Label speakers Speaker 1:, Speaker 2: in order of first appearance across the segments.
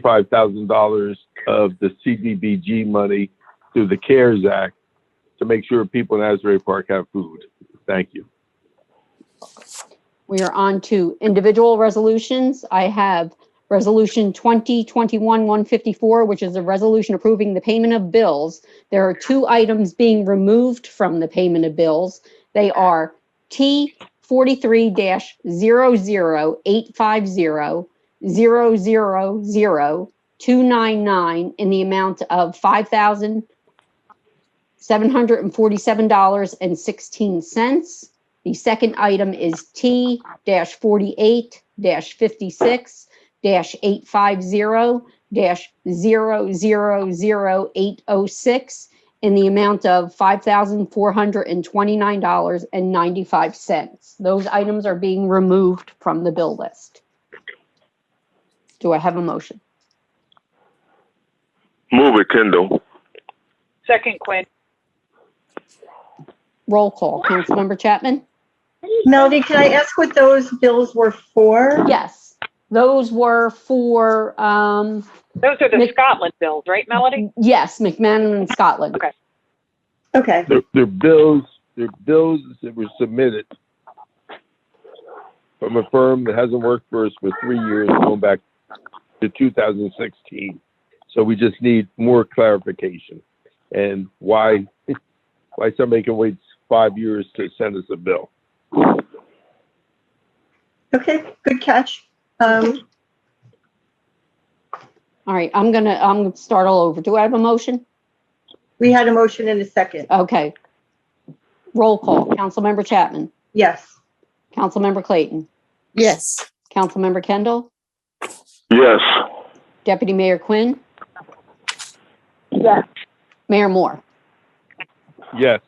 Speaker 1: five thousand dollars of the CDBG money through the CARES Act to make sure people in Asbury Park have food. Thank you.
Speaker 2: We are on to individual resolutions. I have Resolution 2021-154, which is a resolution approving the payment of bills. There are two items being removed from the payment of bills. They are T 43-00850, 000299 in the amount of $5,747.16. The second item is T forty-eight fifty-six eight five zero 850 zero zero zero eight oh six in the amount of five thousand four hundred and twenty-nine dollars and ninety-five cents. Those items are being removed from the bill list. Do I have a motion?
Speaker 3: Move it, Kendall.
Speaker 4: Second Quinn.
Speaker 2: Roll call. Councilmember Chapman?
Speaker 5: Melody, can I ask what those bills were for?
Speaker 2: Yes. Those were for, um,
Speaker 4: Those are the
Speaker 2: Miss-
Speaker 4: Scotland bills, right, Melody?
Speaker 2: yes, McMahon and Scotland.
Speaker 4: Okay.
Speaker 5: Okay,
Speaker 1: Their, their bills, their bills that were submitted from a firm that hasn't worked for us for three years, going back to two thousand sixteen. So we just need more clarification and why, why somebody can wait five years to send us a bill.
Speaker 5: okay, good catch. Um,
Speaker 2: All right, I'm gonna, I'm gonna start all over. Do I have a motion?
Speaker 5: we had a motion in a second.
Speaker 2: Okay. Roll call. Councilmember Chapman.
Speaker 5: Yes.
Speaker 2: Councilmember Clayton.
Speaker 6: Yes.
Speaker 2: Councilmember Kendall.
Speaker 3: Yes.
Speaker 2: Deputy Mayor Quinn.
Speaker 4: Yes.
Speaker 2: Mayor Moore.
Speaker 1: Yes,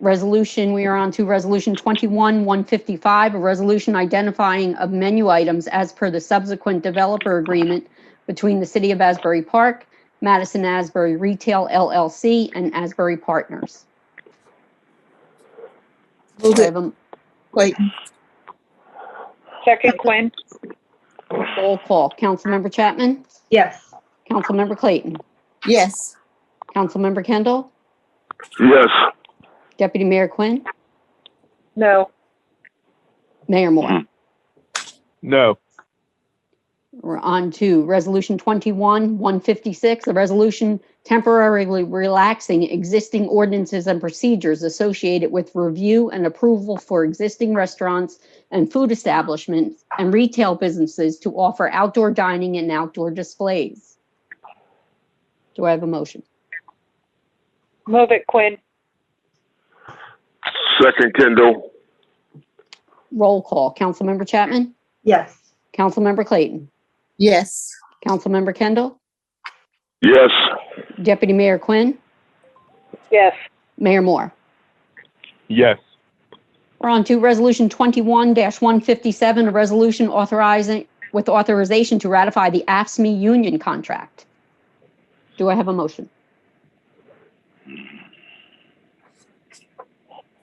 Speaker 2: Resolution, we are on to Resolution 21-155, a resolution identifying of menu items as per the subsequent developer agreement between the City of Asbury Park, Madison Asbury Retail LLC, and Asbury Partners.
Speaker 6: Move
Speaker 2: Do I
Speaker 6: it,
Speaker 2: have a
Speaker 6: Clayton.
Speaker 4: Second Quinn.
Speaker 2: roll call? Councilmember Chapman.
Speaker 5: Yes.
Speaker 2: Councilmember Clayton.
Speaker 6: Yes.
Speaker 2: Councilmember Kendall.
Speaker 3: Yes.
Speaker 2: Deputy Mayor Quinn.
Speaker 4: No.
Speaker 2: Mayor Moore.
Speaker 1: no,
Speaker 2: We're on to Resolution 21-156, a resolution temporarily relaxing existing ordinances and procedures associated with review and approval for existing restaurants and food establishments and retail businesses to offer outdoor dining and outdoor displays. Do I have a motion?
Speaker 4: Move it, Quinn.
Speaker 3: Second, Kendall.
Speaker 2: Roll call. Councilmember Chapman?
Speaker 5: Yes.
Speaker 2: Councilmember Clayton?
Speaker 6: Yes.
Speaker 2: Councilmember Kendall?
Speaker 3: Yes.
Speaker 2: Deputy Mayor Quinn?
Speaker 4: Yes.
Speaker 2: Mayor Moore?
Speaker 1: yes,
Speaker 2: We're on to Resolution 21-157, a resolution authorizing, with authorization to ratify the AFSMI E union contract. Do I have a motion?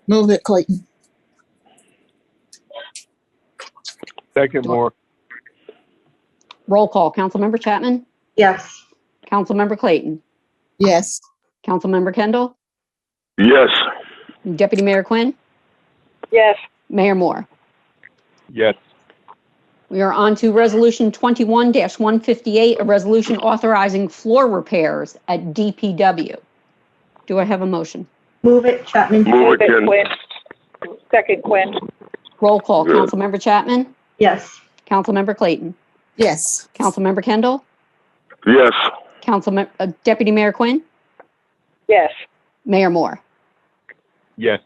Speaker 6: Move it, Clayton.
Speaker 1: second more,
Speaker 2: Roll call. Councilmember Chapman?
Speaker 5: Yes.
Speaker 2: Councilmember Clayton?
Speaker 6: Yes.
Speaker 2: Councilmember Kendall?
Speaker 3: Yes.
Speaker 2: Deputy Mayor Quinn?
Speaker 4: Yes.
Speaker 2: Mayor Moore?
Speaker 1: yes,
Speaker 2: We are on to Resolution 21-158, a resolution authorizing floor repairs at DPW. Do I have a motion?
Speaker 5: Move it, Chapman.
Speaker 3: Move it, Kendall.
Speaker 4: Quinn. Second Quinn.
Speaker 2: Roll call.
Speaker 3: Yes.
Speaker 2: Councilmember Chapman?
Speaker 5: Yes.
Speaker 2: Councilmember Clayton?
Speaker 6: Yes.
Speaker 2: Councilmember Kendall?
Speaker 3: Yes.
Speaker 2: Councilmember, uh, Deputy Mayor Quinn,
Speaker 4: Yes.
Speaker 2: Mayor Moore.
Speaker 1: yes,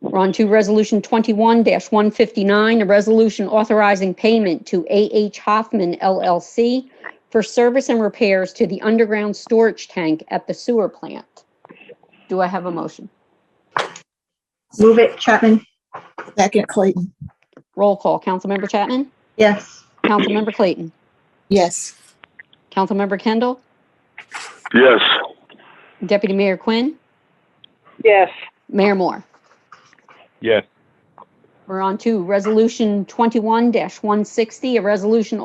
Speaker 2: We're on to Resolution 21-159, a resolution authorizing payment to A.H. Hoffman LLC for service and repairs to the underground storage tank at the sewer plant. Do I have a motion?
Speaker 5: Move it, Chapman.
Speaker 6: Second, Clayton.
Speaker 2: Roll call. Councilmember Chapman?
Speaker 5: Yes.
Speaker 2: Councilmember Clayton?
Speaker 6: Yes.
Speaker 2: Councilmember Kendall?
Speaker 3: Yes.
Speaker 2: Deputy Mayor Quinn?
Speaker 4: Yes.
Speaker 2: Mayor Moore.
Speaker 1: yes.
Speaker 2: We're on to Resolution 21-160, a resolution